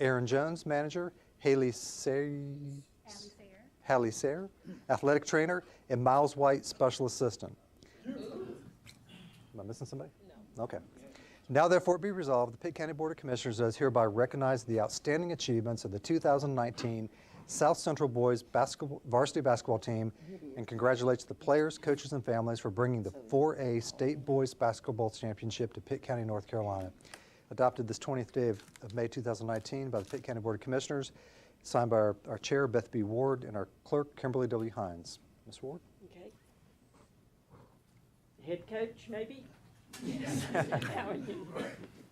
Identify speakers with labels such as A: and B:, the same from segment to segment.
A: Aaron Jones, manager, Haley Sayre, Hallie Sayre, athletic trainer, and Miles White, special assistant. Am I missing somebody? No. Okay. Now therefore be resolved, the Pitt County Board of Commissioners does hereby recognize the outstanding achievements of the 2019 South Central Boys basketball, varsity basketball team and congratulates the players, coaches, and families for bringing the 4A State Boys Basketball Championship to Pitt County, North Carolina. Adopted this 20th day of, of May 2019 by the Pitt County Board of Commissioners, signed by our, our chair, Beth B. Ward, and our clerk, Kimberly W. Hines. Ms. Ward?
B: Okay. Head coach, maybe? How are you?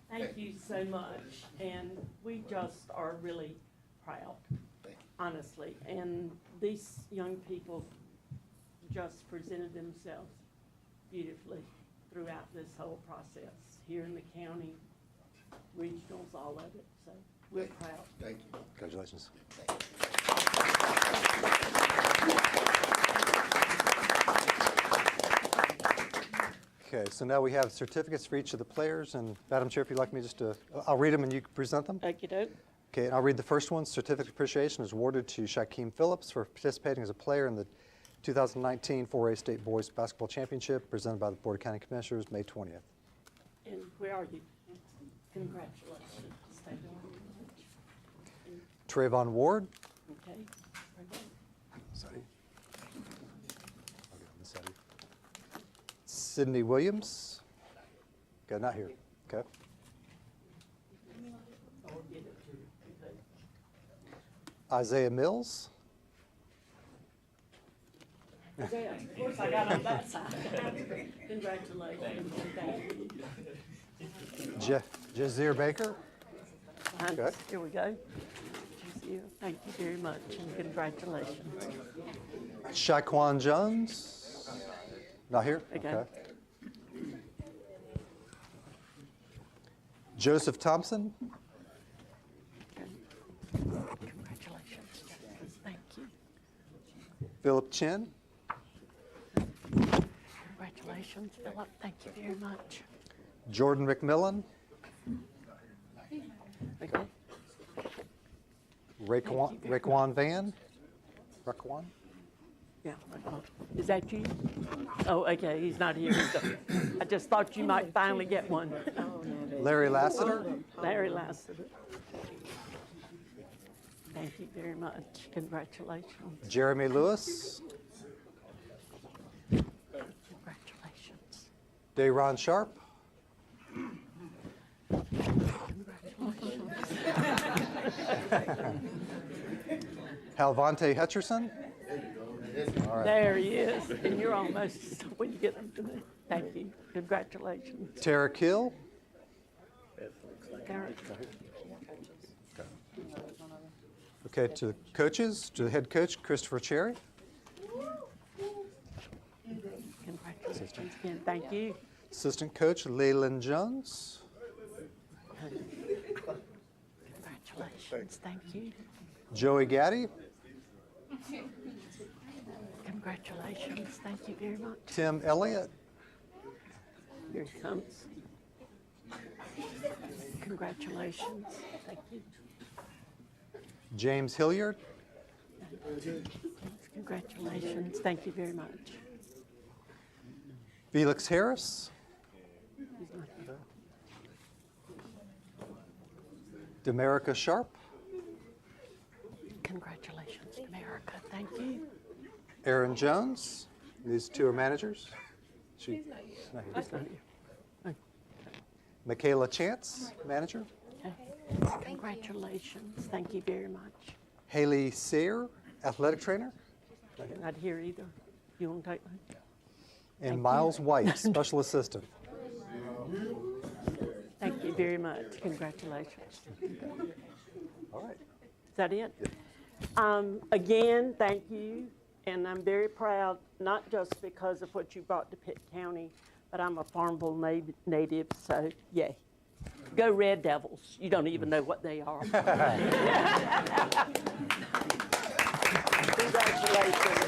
B: Thank you so much, and we just are really proud, honestly. And these young people just presented themselves beautifully throughout this whole process, here in the county, regionals, all of it, so we're proud.
C: Thank you.
A: Congratulations. Okay, so now we have certificates for each of the players, and Madam Chair, if you'd like me just to, I'll read them and you can present them?
B: Okey-doke.
A: Okay, and I'll read the first one. Certificate of appreciation is awarded to Shaquem Phillips for participating as a player in the 2019 4A State Boys Basketball Championship presented by the Board of County Commissioners, May 20th.
B: And where are you? Congratulations. Thank you.
A: Trayvon Ward.
B: Okay. Very good.
A: Sorry. Sydney Williams. Okay, not here. Okay. Isaiah Mills.
B: Yeah, Of course, I got on that side. Congratulations. Thank you.
A: Jeff Jazir Baker.
B: Behind
A: Okay.
B: us. Here we go. Thank you. Thank you very much, and congratulations.
A: Shaquan Jones. Not here?
B: Okay.
A: Joseph Thompson.
B: Okay. Congratulations, Justice. Thank you.
A: Philip Chin.
B: Congratulations, Philip. Thank you very much.
A: Jordan McMillan.
B: Okay.
A: Raekwon, Raekwon Van. Raekwon.
B: Yeah. Is that you? Oh, okay, he's not here. I just thought you might finally get one.
A: Larry Lassiter.
B: Larry Lassiter. Thank you very much. Congratulations.
A: Jeremy Lewis.
B: Congratulations.
A: Dayron Sharp. Halvante Hutcherson.
B: There he is, and you're almost, when you get them to me. Thank you. Congratulations.
A: Tara Kill.
B: Garrett.
A: Okay, to the coaches, to the head coach, Christopher Cherry.
B: Congratulations again. Thank you.
A: Assistant coach, Leyland Jones.
B: Congratulations. Thank you.
A: Joey Gaddy.
B: Congratulations. Thank you very much.
A: Tim Elliott.
B: Here he comes. Congratulations. Thank you.
A: James Hilliard.
B: Congratulations. Thank you very much.
A: Felix Harris. Demerica Sharp.
B: Congratulations, America. Thank you.
A: Aaron Jones. These two are managers. She, not here. Michaela Chance, manager.
B: Congratulations. Thank you very much.
A: Haley Sayre, athletic trainer.
B: Not here either. You want to take one?
A: And Miles White, special assistant.
B: Thank you very much. Congratulations.
A: All right.
B: Is that it? Um, again, thank you, and I'm very proud, not just because of what you brought to Pitt County, but I'm a Farmville na- native, so yay. Go Red Devils. You don't even know what they are. Congratulations.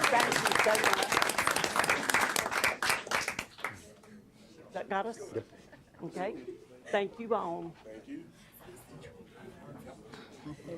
B: Thank you so much. That got us? Okay. Thank you all. They